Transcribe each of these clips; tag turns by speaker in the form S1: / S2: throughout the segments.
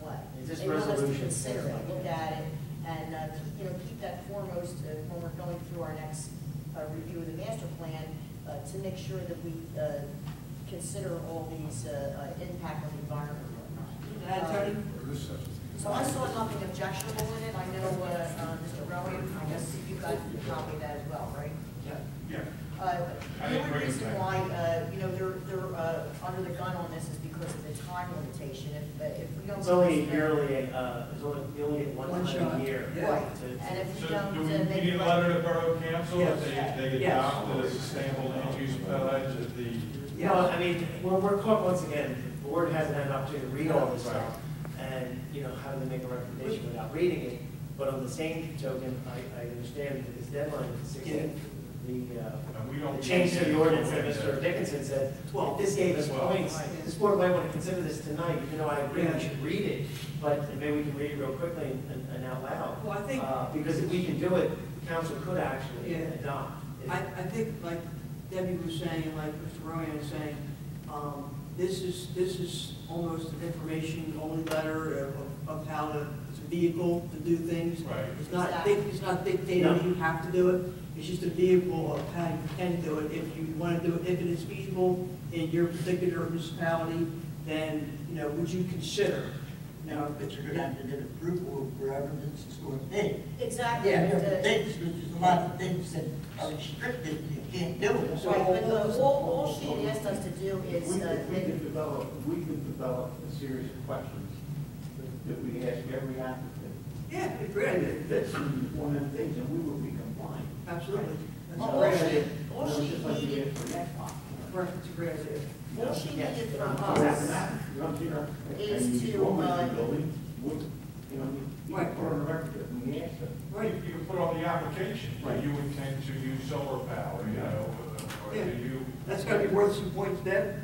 S1: what.
S2: It's just
S1: They want us to
S2: resolution,
S1: consider
S2: things
S1: it,
S2: like
S1: look
S2: that.
S1: at it, and, uh, keep- you know, keep that foremost uh, when we're going through our next uh, review of the master plan, uh, to make sure that we uh, consider all these uh, uh, impact on the environment. Um,
S3: Can I, Tony?
S1: So I saw nothing objectionable in it, I know, uh, uh, Mr. Rowan, I guess you got a copy of that as well, right?
S3: Yeah.
S4: Yeah.
S1: Uh,
S4: I
S1: The
S4: didn't
S1: only
S4: bring it
S1: reason
S4: back.
S1: why, uh, you know, they're, they're uh, under the gun on this is because of the time limitation. If, if we don't.
S2: It's only a yearly, uh, it's only, you only get one
S3: One
S2: time a
S3: shot.
S2: year.
S3: Yeah.
S1: Right,
S2: To- to-
S1: and if we
S4: So
S1: don't.
S4: do we
S1: uh, make
S4: we need
S1: it
S4: a
S1: like-
S4: letter to Borough Council if
S2: Yes.
S4: they, they
S2: Yes.
S4: adopt the sustainable land use pledge at the,
S2: No, I mean, we're, we're caught once again, the board hasn't had an opportunity to read all this stuff, and, you know, how do they make a recommendation without reading it? But on the same token, I, I understand that this deadline is sixteen, the, uh,
S4: and we don't.
S2: the change to the ordinance that
S4: Yeah.
S2: Mr. Dickinson said, well, this gave us
S4: Well-
S2: points, this board might want to consider this tonight, even though I agree we should read it, but maybe we can read it real quickly and, and out loud.
S3: Well, I think, I,
S2: Uh, Because if we can do it, council could actually
S3: Yeah.
S2: adopt. it.
S3: I think like Debbie was saying, and like Mr. Rowan was saying, um, this is, this is almost an information only letter of, of how to, it's a vehicle to do things.
S4: Right.
S3: It's not, dic- it's not dictating you have to do it, it's just a vehicle of how you can do it. If you want to do it, if it is feasible in your particular municipality, then, you know, would you consider?
S5: Now, but you're gonna have to get approval for evidence it's going to be.
S1: Exactly.
S5: Yeah,
S1: uh,
S5: different things, which is a lot of things that are restricted, you can't do it.
S1: Right, but the, all, all she asked us to do
S6: If we
S1: is, uh,
S6: could, we could develop, we could develop a series of questions that- that we ask every applicant.
S3: Yeah, it'd be
S6: And
S3: great,
S6: if that's one of the things, and we will be compliant.
S3: absolutely. That's
S1: Well,
S3: a
S1: all
S3: great
S1: she-
S3: idea.
S1: all
S6: It's
S1: she
S6: just like we
S1: needed-
S6: did for that one.
S3: Right, it's a great idea.
S1: all she needed
S6: Yes.
S1: from
S6: What happened
S1: us,
S6: after? You don't see her.
S1: is
S6: And you
S1: to,
S6: go in the
S1: uh,
S6: building, would- You know, you- you
S3: Right.
S6: put on the record that we asked them.
S3: Right,
S4: You can put on the application,
S6: Right.
S4: do you intend to use solar power, you know, or do
S3: Yeah.
S4: you?
S3: that's gotta be worth some points then.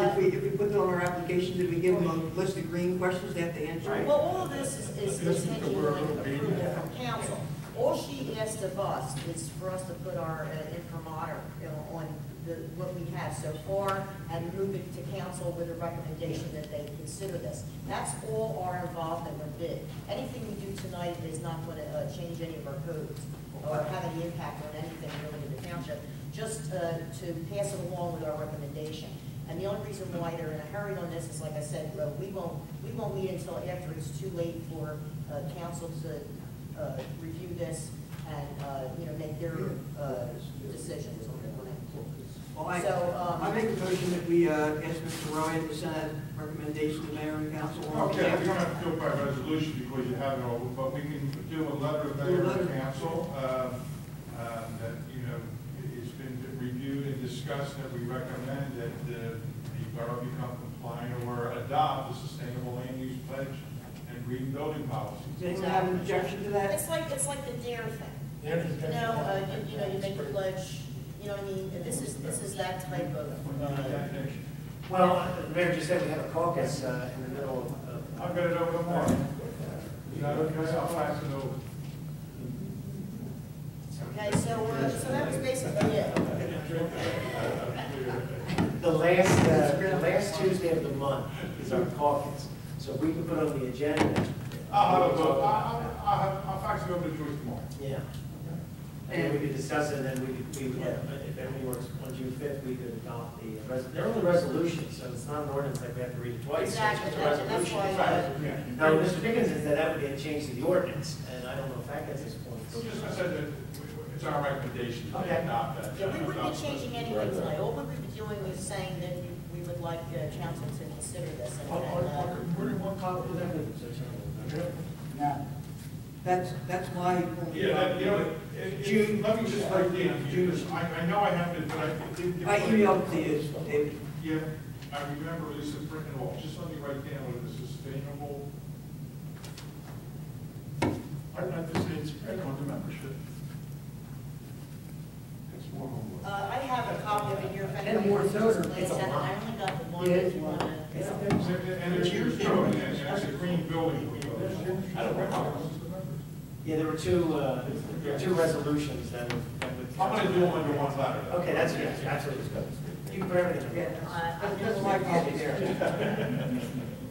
S3: If we, if we put it on our application, did we give them a list of green questions they have to answer?
S6: Right.
S1: well, all of this is, is is taking like approval from council. All she asked of us is for us to put our uh, imprimatur you know, on the, what we have so far and move it to council with a recommendation that they consider this. That's all our involvement with it. Anything we do tonight is not going to change any of our codes or have any impact on anything really in the township, just uh, to pass it along with our recommendation. And the only reason why they're in a hurry on this is, like I said, uh, we won't, we won't meet until after it's too late for uh, council to uh, review this and, uh, you know, make their uh, decisions on it.
S3: Well, I,
S1: So, um,
S3: I make a motion that we, uh, ask Mr. Ryan to send a recommendation to mayor and council. on
S4: Okay, we don't have to do it by resolution because you have it all, but we can do a letter of mayor and council, um, um, that, you know, it- it's been reviewed and discussed, that we recommend that the, the borough become compliant or adopt the sustainable land use pledge and green building policies.
S3: Does anyone have an objection to that?
S1: It's like, it's like the dare thing.
S5: There is
S1: You know, uh, you- you know, you make a pledge, you know what I mean? This is, this is that type of, uh,
S2: Well, uh, the mayor just said we have a caucus uh, in the middle of-
S4: I'll
S2: of,
S4: get it over tomorrow. Is that okay? I'll fax it over.
S1: okay, so, uh, so that was basically it.
S2: the last, uh, the last Tuesday of the month is our caucus. So we can put on the agenda.
S4: I'll have a vote, I'll, I'll, have- I'll fax it over to Joyce tomorrow.
S2: Yeah. And then we could discuss it, and then we could, we would, if everything works, on June fifth, we could adopt the, res- they're only resolutions, so it's not an ordinance like we have to read it twice. so it's just a
S1: Exactly, that's- that's
S2: resolution.
S1: why, uh,
S4: Yeah.
S2: Now, Mr. Dickinson said that would be a change to the ordinance, and I don't know if that gets us
S4: So
S2: points.
S4: just, I said that it's our recommendation to
S2: Okay.
S4: adopt that.
S1: Yeah, we wouldn't be changing anything tonight. All we would be doing was saying that we would like uh, council to consider this. and- and, uh,
S5: Now,
S3: That's, that's why.
S4: Yeah, that- you know, it- it- June, let me just break down, June, I, I know I have to, but I did.
S3: I emailed to you, David.
S4: Yeah, I remember Lisa printing off, just let me write down what is sustainable. I'd like to say it's spread on the membership. It's one on one.
S1: Uh, I have a copy of it here. if
S3: And
S1: anybody
S3: more
S1: wants to
S3: toner.
S1: glance
S4: It's a
S1: at it.
S4: lot.
S1: I only got the one
S3: Yeah,
S1: that
S3: it's
S1: you
S3: one.
S1: want to.
S4: And it's your building, and it's a green building. I don't know.
S2: Yeah, there were two, uh, there were two resolutions that would. that would-
S4: I'm gonna do them under one letter.
S2: Okay, that's, yeah, absolutely. You can put everything.
S3: Yeah,
S1: Uh,
S3: that's my copy there.